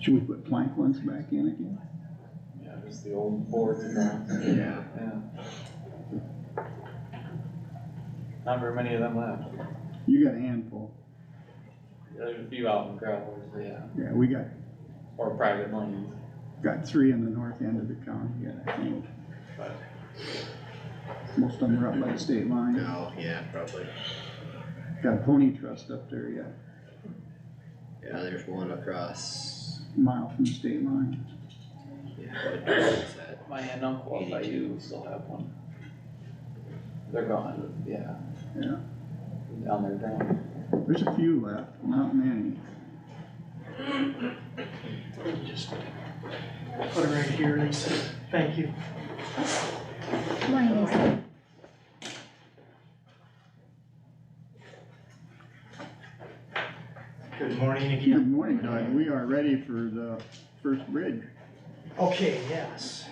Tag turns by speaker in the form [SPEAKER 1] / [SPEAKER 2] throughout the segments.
[SPEAKER 1] Should we put plank ones back in again?
[SPEAKER 2] Yeah, just the old boards and that,
[SPEAKER 1] Yeah.
[SPEAKER 2] yeah. Not very many of them left.
[SPEAKER 1] You got a handful.
[SPEAKER 2] There's a few out in Growlers, yeah,
[SPEAKER 1] Yeah, we got,
[SPEAKER 2] or private lanes,
[SPEAKER 1] got three in the north end of the county, yeah, I think.
[SPEAKER 2] but
[SPEAKER 1] Most of them are up by the state line.
[SPEAKER 3] No, yeah, probably.
[SPEAKER 1] Got a pony trust up there yet,
[SPEAKER 3] Yeah, there's one across,
[SPEAKER 1] a mile from the state line.
[SPEAKER 3] yeah, what direction is that?
[SPEAKER 2] my aunt and uncle up by you still have one. They're gone, yeah.
[SPEAKER 1] Yeah.
[SPEAKER 2] Down there, down.
[SPEAKER 1] There's a few left, not many.
[SPEAKER 4] Just Put it right here, Lisa. Thank you.
[SPEAKER 5] Mine is,
[SPEAKER 4] Good morning
[SPEAKER 1] Good morning, Doug. We are ready for the first bridge.
[SPEAKER 4] Okay, yes.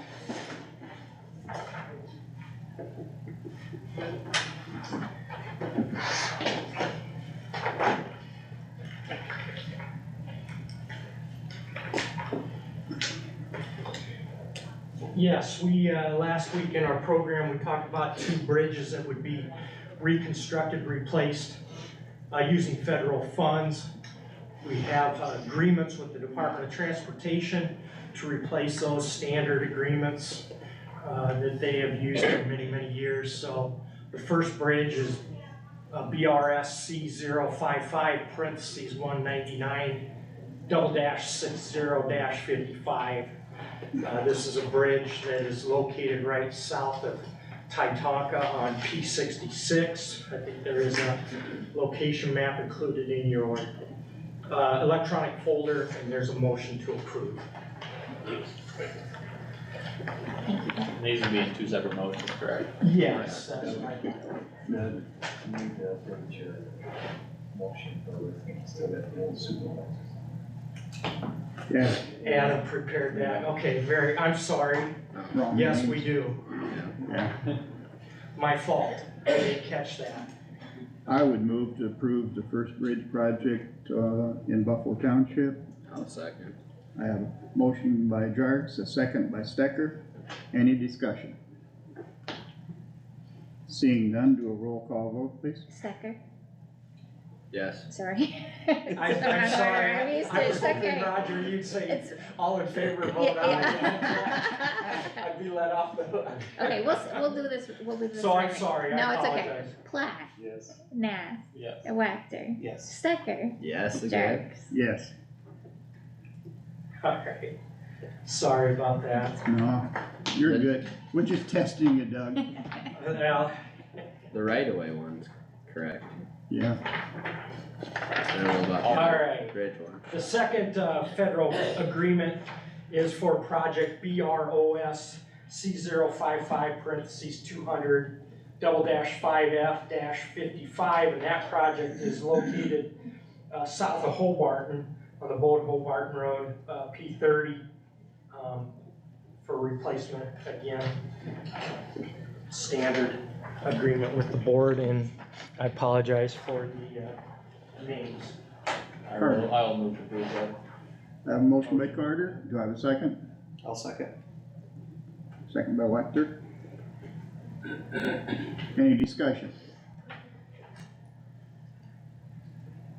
[SPEAKER 4] Yes, we, uh, last week in our program, we talked about two bridges that would be reconstructed, replaced, uh, using federal funds. We have uh, agreements with the Department of Transportation to replace those standard agreements uh, that they have used for many, many years. So the first bridge is uh, BRS C 55 parentheses one ninety-nine double dash six zero dash fifty-five. Uh, This is a bridge that is located right south of Titanca on P sixty-six. I think there is a location map included in your uh, electronic folder, and there's a motion to approve.
[SPEAKER 2] And These would be in two separate motions, correct?
[SPEAKER 4] Yes, that's right.
[SPEAKER 6] Doug, you need to update your motion for everything instead of the old supervisor.
[SPEAKER 1] Yeah,
[SPEAKER 4] Adam prepared that, okay, very, I'm sorry,
[SPEAKER 3] Oh,
[SPEAKER 1] wrong.
[SPEAKER 4] yes,
[SPEAKER 1] name.
[SPEAKER 4] we do,
[SPEAKER 3] yeah.
[SPEAKER 1] Yeah.
[SPEAKER 4] my fault, I didn't catch that.
[SPEAKER 1] I would move to approve the first bridge project, uh, in Buffalo Township.
[SPEAKER 3] I'll second.
[SPEAKER 1] I have a motion by Jarks, a second by Stecker. Any discussion? Seeing none, do a roll call vote, please.
[SPEAKER 5] Stecker,
[SPEAKER 3] Yes.
[SPEAKER 5] sorry.
[SPEAKER 4] I- I'm sorry,
[SPEAKER 5] It's
[SPEAKER 4] I was hoping,
[SPEAKER 5] okay.
[SPEAKER 4] Roger, you'd say
[SPEAKER 5] It's,
[SPEAKER 4] all in favor,
[SPEAKER 5] yeah,
[SPEAKER 4] vote aye.
[SPEAKER 5] yeah.
[SPEAKER 4] I'd be let off the hook.
[SPEAKER 5] Okay, we'll, s- we'll do this, we'll do this.
[SPEAKER 4] So I'm
[SPEAKER 5] right.
[SPEAKER 4] sorry, I
[SPEAKER 5] No, it's okay.
[SPEAKER 4] apologize.
[SPEAKER 5] Plath,
[SPEAKER 2] Yes.
[SPEAKER 5] Nath,
[SPEAKER 2] Yes.
[SPEAKER 5] Wactor,
[SPEAKER 4] Yes.
[SPEAKER 5] Stecker,
[SPEAKER 3] Yes, again.
[SPEAKER 5] Jerks.
[SPEAKER 1] Yes,
[SPEAKER 4] Alright, sorry about that.
[SPEAKER 1] no, you're good. We're just testing you, Doug.
[SPEAKER 4] Well,
[SPEAKER 3] The right of way one's correct.
[SPEAKER 1] Yeah,
[SPEAKER 3] I don't know about the other
[SPEAKER 4] alright.
[SPEAKER 3] bridge one.
[SPEAKER 4] The second uh, federal agreement is for project BROS C 55 parentheses two hundred double dash five F dash fifty-five, and that project is located uh, south of Hobarton on the Bold Hobarton Road, uh, P thirty, um, for replacement again. Standard agreement with the board, and I apologize for the uh, names.
[SPEAKER 2] I will, I will move to approve that.
[SPEAKER 1] I have a motion by Carter. Do I have a second?
[SPEAKER 6] I'll second.
[SPEAKER 1] Second by Wactor. Any discussion?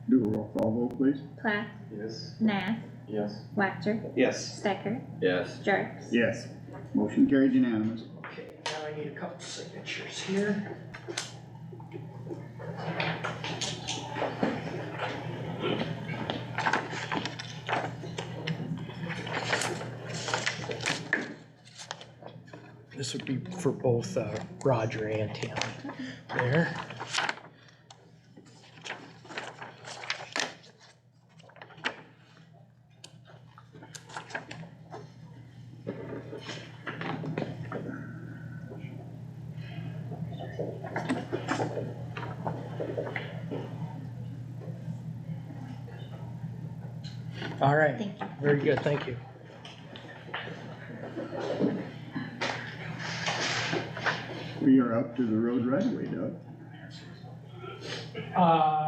[SPEAKER 1] Do a roll call vote, please.
[SPEAKER 5] Plath,
[SPEAKER 2] Yes.
[SPEAKER 5] Nath,
[SPEAKER 2] Yes.
[SPEAKER 5] Wactor,
[SPEAKER 6] Yes.
[SPEAKER 5] Stecker,
[SPEAKER 3] Yes.
[SPEAKER 5] Jerks.
[SPEAKER 1] Yes. Motion carried unanimous.
[SPEAKER 4] Okay, now I need a couple signatures here. This would be for both uh, Roger and Tammy there. All right.
[SPEAKER 5] Thank you.
[SPEAKER 4] Very good, thank you.
[SPEAKER 1] We are up to the road right away, Doug.
[SPEAKER 4] Uh,